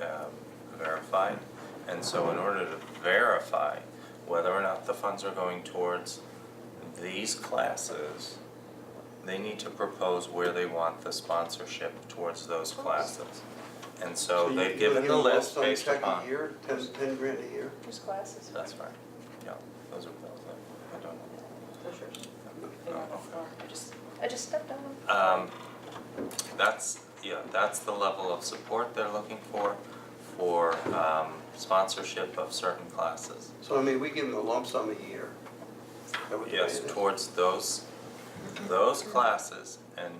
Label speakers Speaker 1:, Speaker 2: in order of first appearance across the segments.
Speaker 1: um, verified. And so in order to verify whether or not the funds are going towards these classes, they need to propose where they want the sponsorship towards those classes. And so
Speaker 2: you-
Speaker 1: they've
Speaker 2: you'll
Speaker 1: given
Speaker 2: give
Speaker 1: the
Speaker 2: them a lump
Speaker 1: list
Speaker 2: sum
Speaker 1: based upon.
Speaker 2: Check a year, ten, ten grand a year.
Speaker 3: There's classes.
Speaker 1: That's right, yeah, those are, those are- I don't know.
Speaker 3: Those are- they
Speaker 1: No,
Speaker 3: don't
Speaker 1: okay.
Speaker 3: know. I just, I just stepped on them.
Speaker 1: Um, that's, yeah, that's the level of support they're looking for, for, um, sponsorship of certain classes.
Speaker 2: So I mean, we give them a lump sum a year. Is that what the
Speaker 1: Yes,
Speaker 2: rate is?
Speaker 1: towards those, those classes, and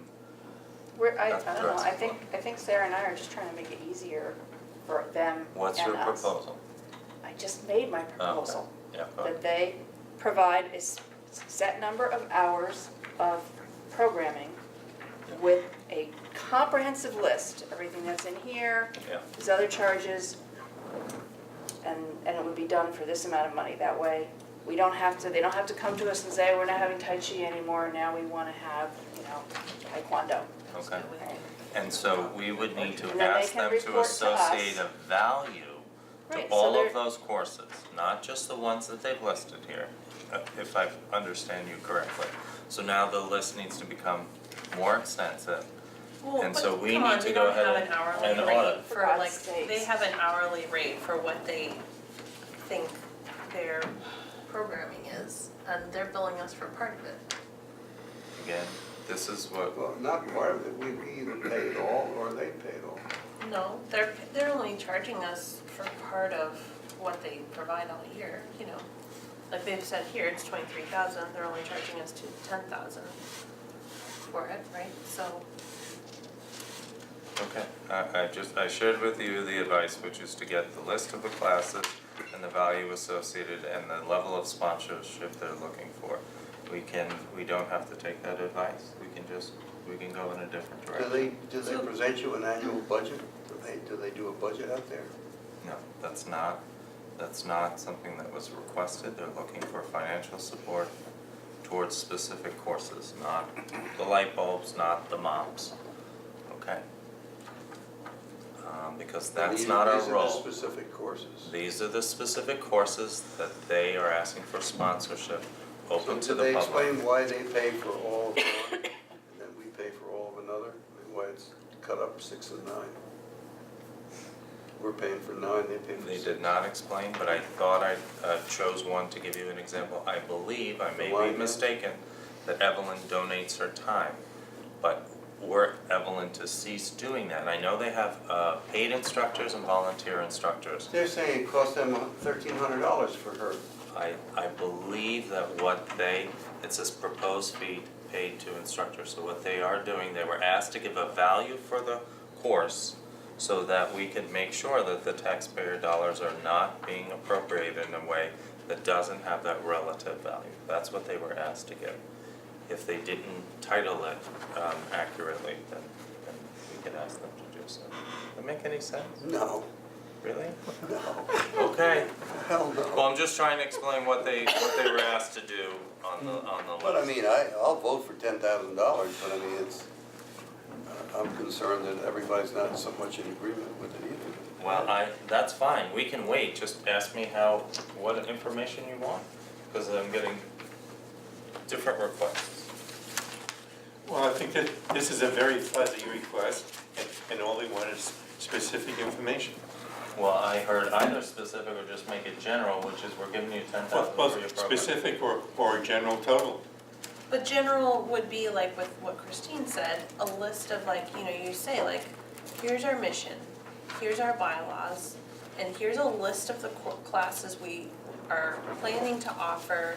Speaker 3: We're, I, I
Speaker 1: That's
Speaker 3: don't know, I
Speaker 1: correct.
Speaker 3: think, I think Sarah and I are just trying to make it easier for them and us.
Speaker 1: what's your proposal?
Speaker 3: I just made my
Speaker 1: Oh, okay.
Speaker 3: proposal,
Speaker 1: Yeah, go ahead.
Speaker 3: that they provide a s- set number of hours of programming
Speaker 1: Yeah.
Speaker 3: with a comprehensive list, everything that's in here,
Speaker 1: yeah,
Speaker 3: his other charges, and, and it would be done for this amount of money. That way, we don't have to, they don't have to come to us and say, we're not having Tai Chi anymore, now we wanna have, you know, Taekwondo.
Speaker 1: okay.
Speaker 3: Right.
Speaker 1: And so we would need to
Speaker 3: And then they
Speaker 1: ask them
Speaker 3: can
Speaker 1: to
Speaker 3: report to us.
Speaker 1: associate a value to
Speaker 3: Right, so
Speaker 1: all
Speaker 3: they're-
Speaker 1: of those courses, not just the ones that they've listed here, uh, if I understand you correctly. So now the list needs to become more extensive.
Speaker 4: Well,
Speaker 1: And
Speaker 4: but
Speaker 1: so we
Speaker 4: come
Speaker 1: need
Speaker 4: on,
Speaker 1: to
Speaker 4: they
Speaker 1: go
Speaker 4: don't have
Speaker 1: ahead
Speaker 4: an
Speaker 1: and
Speaker 4: hourly
Speaker 1: audit.
Speaker 4: rate
Speaker 3: For
Speaker 4: for
Speaker 3: God's
Speaker 4: like, they
Speaker 3: sakes.
Speaker 4: have an hourly rate for what they think their programming is, and they're billing us for part of it.
Speaker 1: Again, this is what,
Speaker 2: Well, not part of it, we, we either pay it all or they pay it all.
Speaker 4: No, they're, they're only charging us for part of what they provide all year, you know. Like they've said here, it's twenty-three thousand, they're only charging us to ten thousand for it, right? So,
Speaker 1: okay, I, I just, I shared with you the advice, which is to get the list of the classes and the value associated and the level of sponsorship they're looking for. We can, we don't have to take that advice, we can just, we can go in a different
Speaker 2: Do
Speaker 1: direction.
Speaker 2: they, do they present you an annual budget? Do they, do they do a budget out there?
Speaker 1: No, that's not, that's not something that was requested, they're looking for financial support towards specific courses, not the light bulbs, not the mops, okay? Um, because that's
Speaker 2: These-
Speaker 1: not our role.
Speaker 2: These are the specific courses.
Speaker 1: These are the specific courses that they are asking for sponsorship, open to
Speaker 2: So do
Speaker 1: the
Speaker 2: they
Speaker 1: public.
Speaker 2: explain why they pay for all of one and then we pay for all of another? I mean, Why it's cut up six and nine? We're paying for nine, they pay for
Speaker 1: They
Speaker 2: six.
Speaker 1: did not explain, but I thought I uh, chose one to give you an example. I believe, I may
Speaker 2: Why?
Speaker 1: be mistaken, that Evelyn donates her time. But were Evelyn to cease doing that, I know they have uh, paid instructors and volunteer instructors.
Speaker 2: They're saying it cost them thirteen hundred dollars for her.
Speaker 1: I, I believe that what they, it says proposed fee paid to instructors, so what they are doing, they were asked to give a value for the course so that we could make sure that the taxpayer dollars are not being appropriated in a way that doesn't have that relative value. That's what they were asked to give. If they didn't title it um, accurately, then, then we could ask them to do so. Does that make any sense?
Speaker 2: No,
Speaker 1: Really?
Speaker 2: no,
Speaker 1: Okay.
Speaker 2: hell
Speaker 1: Well,
Speaker 2: no.
Speaker 1: I'm just trying to explain what they, what they were asked to do on the, on the list.
Speaker 2: But I mean, I, I'll vote for ten thousand dollars, but I mean, it's, I'm concerned that everybody's not so much in agreement with it either.
Speaker 1: Well, I, that's fine, we can wait, just ask me how, what information you want, because I'm getting different requests.
Speaker 5: Well, I think that this is a very fuzzy request, and- and all they want is specific information.
Speaker 1: Well, I heard either specific or just make it general, which is we're giving you ten
Speaker 5: Well,
Speaker 1: thousand for your
Speaker 5: Both
Speaker 1: program.
Speaker 5: specific or, or a general total.
Speaker 4: But general would be like with what Christine said, a list of like, you know, you say like, here's our mission, here's our bylaws, and here's a list of the co- classes we are planning to offer.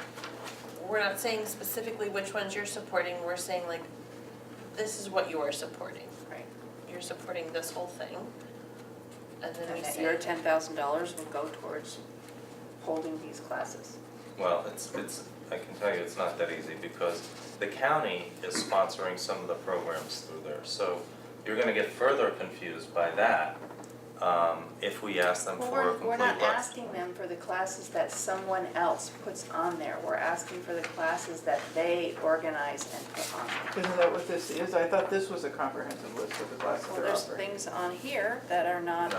Speaker 4: We're not saying specifically which ones you're supporting, we're saying like, this is what you are supporting.
Speaker 3: Right.
Speaker 4: You're supporting this whole thing. And then we
Speaker 3: And that
Speaker 4: say.
Speaker 3: your ten thousand dollars will go towards holding these classes.
Speaker 1: Well, it's, it's, I can tell you it's not that easy because the county is sponsoring some of the programs through there. So you're gonna get further confused by that, um, if we ask them
Speaker 3: Well,
Speaker 1: for a
Speaker 3: we're,
Speaker 1: complete
Speaker 3: we're
Speaker 1: list.
Speaker 3: not asking them for the classes that someone else puts on there. We're asking for the classes that they organize and put on. there.
Speaker 6: Isn't that what this is? I thought this was a comprehensive list of the classes
Speaker 3: Well,
Speaker 6: they're
Speaker 3: there's
Speaker 6: offering.
Speaker 3: things on here that are not